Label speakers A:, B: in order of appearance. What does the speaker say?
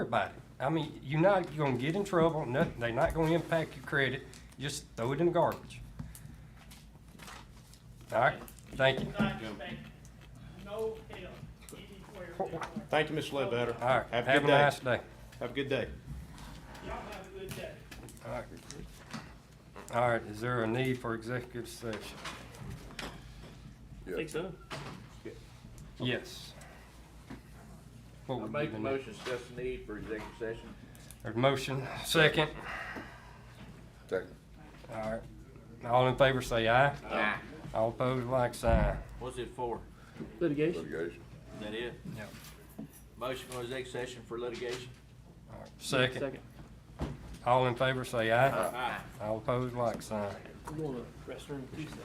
A: everybody. I mean, you're not gonna get in trouble, nothing, they're not gonna impact your credit, just throw it in the garbage. All right, thank you.
B: not expect no help anywhere. whatsoever.
C: Thank you, Mr. Ledbetter.
A: All right,
C: Have a
A: have a
C: good day.
A: nice day.
C: Have a good day.
B: Y'all have a good day.
A: All right. All right, is there a need for executive session?
D: Think so?
A: Yes. What
D: I
A: would be
D: make
A: the
D: a
A: need?
D: motion, discuss the need for executive session.
A: There's a motion, second.
E: Second.
A: All right, all in favor say aye.
D: Aye.
A: All opposed, like sign.
D: What's it for?
E: Litigation.
D: Is that it?
A: Yep.
D: Motion for executive session for litigation?
A: All right, Second. All in favor say aye.
D: Aye.
A: All opposed, like sign.
F: I'm going to restroom Tuesday.